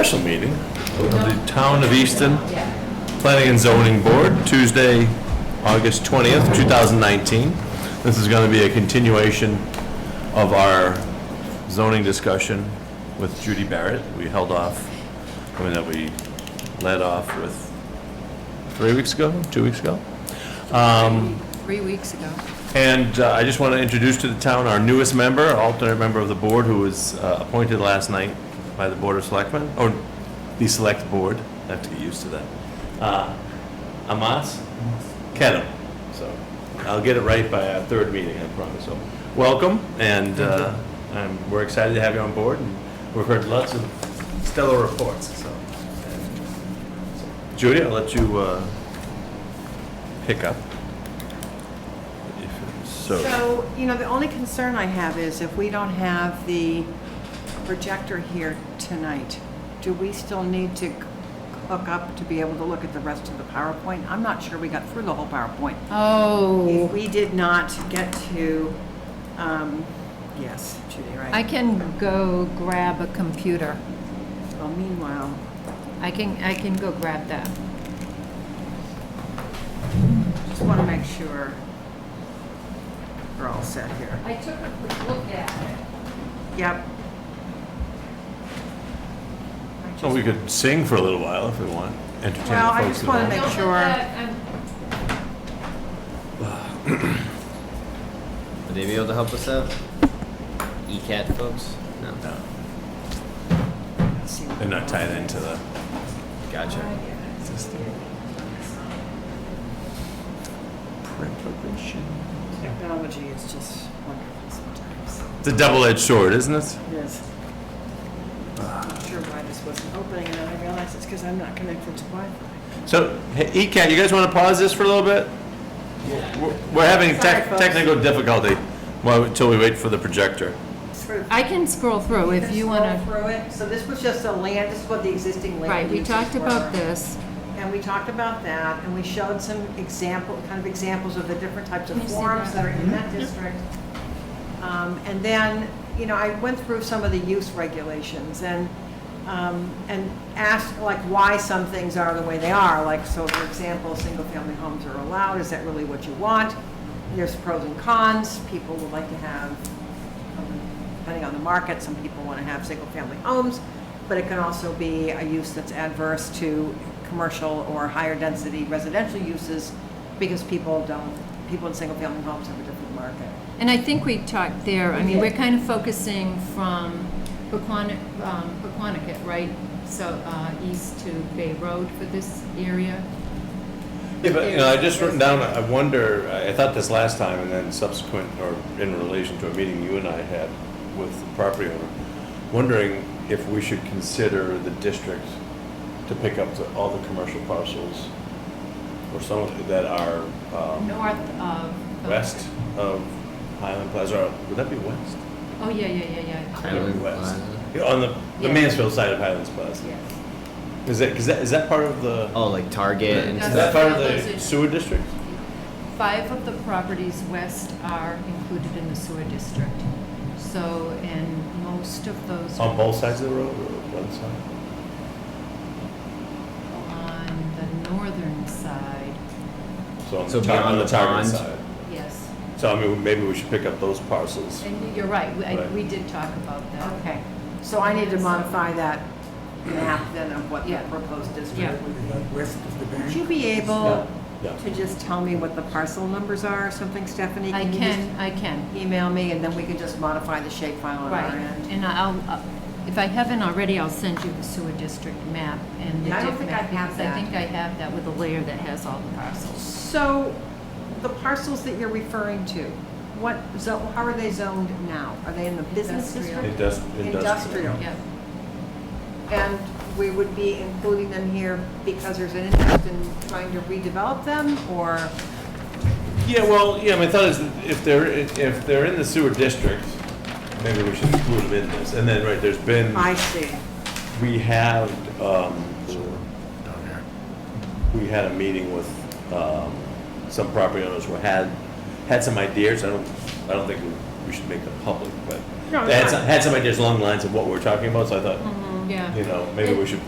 special meeting of the Town of Easton Planning and Zoning Board, Tuesday, August 20th, 2019. This is going to be a continuation of our zoning discussion with Judy Barrett. We held off, I mean, that we led off with three weeks ago, two weeks ago. Three weeks ago. And uh, I just want to introduce to the town our newest member, alternate member of the board, who was uh, appointed last night by the Board of Selectmen, or the Select Board, I have to get used to that. Uh, Amas Kedem, so I'll get it right by our third meeting, I promise, so. Welcome, and uh, I'm- we're excited to have you on board, and we've heard lots of stellar reports, so. Judy, I'll let you uh, pick up. if- So, you know, the only concern I have is if we don't have the projector here tonight, do we still need to hook up to be able to look at the rest of the PowerPoint? I'm not sure we got through the whole PowerPoint. If Oh, we did not get to, um, yes, Judy, I right? can go grab a computer. Well, meanwhile, I can, I can go grab that. just want to make sure we're all set here. I took a quick look at Yep. So we could sing for a little while if we want, entertain the folks. Well, I just at wanna home. make sure. um, Would they be able to help us out? ECAT folks? No. No. See. They're not tied into the, Gotcha. Technology is just wonderful sometimes. it's a double-edged sword, isn't it? It is. Not sure why this wasn't opening, and then I realized it's because I'm not connected to Wi-Fi. So, hey, ECAT, you guys want to pause this for a little bit? We're- We're having Sorry, tech- folks. technical difficulty while- until we wait for the projector. I can scroll through if you want Through it, so this was just a land, this is what the existing to. land. Right, we uses talked were. about this. And we talked about that, and we showed some example, kind of examples of the different types of Can you see forms that? Mm-hmm. that are in that district. Um, And then, you know, I went through some of the use regulations and, um, and asked like why some things are the way they are. Like, so for example, single-family homes are allowed, is that really what you want? There's pros and cons, people would like to have um, depending on the market, some people want to have single-family homes, but it can also be a use that's adverse to commercial or higher-density residential uses because people don't, people in single-family homes have a different market. And I think we talked there, I mean, we're kind of focusing from Paquonic, um, Paquonic, right? So, uh, east to Bay Road for this area. Yeah, but, you know, I just written down, I wonder, I I thought this last time, and then subsequent, or in relation to a meeting you and I had with the property owner, wondering if we should consider the district to pick up the- all the commercial parcels, or some of that are um, North of. west of Highland Plaza, or would that be west? Oh, yeah, yeah, yeah, yeah. Highland West. Plaza. Yeah, On the, the Yeah. Mansfield side of Highlands Plaza. Yes. Is that, is that, is that part of the, Oh, like Target and Yeah. is that stuff? part of That's- the sewer district? Five of the properties west are included in the sewer district. So, and most of those. On both sides of the road, or one side? On the northern side, So on So the top, beyond on the the Target pond? side. yes. So I mean, maybe we should pick up those parcels. And you're right, we, I- Right. we did talk about that. Okay, so I need to modify that map then of what the Yeah. proposed district Yeah. would be. west of the Would bank. you be able Yeah, yeah. to just tell me what the parcel numbers are or something, Stephanie? I you can, I can, just Email me, and then we can just modify the shapefile on right. our end. And I'll, uh, if I haven't already, I'll send you the sewer district map and the Yeah, I don't diff think map, I have because that. I think I have that with a layer that has all the parcels. So the parcels that you're referring to, what, zo- how are they zoned now? Are they in the business Industrial. district? Indus- Industrial. Yeah, And we would be including them here because there's an interest in trying to redevelop them or? Yeah, well, yeah, my thought is that if they're, if they're in the sewer district, maybe we should include them in this. And then, right, there's been, see. we had, um, Down there. we had a meeting with um, some property owners who had, had some ideas, I don't, I don't think we- we should make them public, but No, they had it's some, fine. Mm-hmm. had some ideas along the lines of what we're talking about, so I thought and, Yeah. you know, maybe we should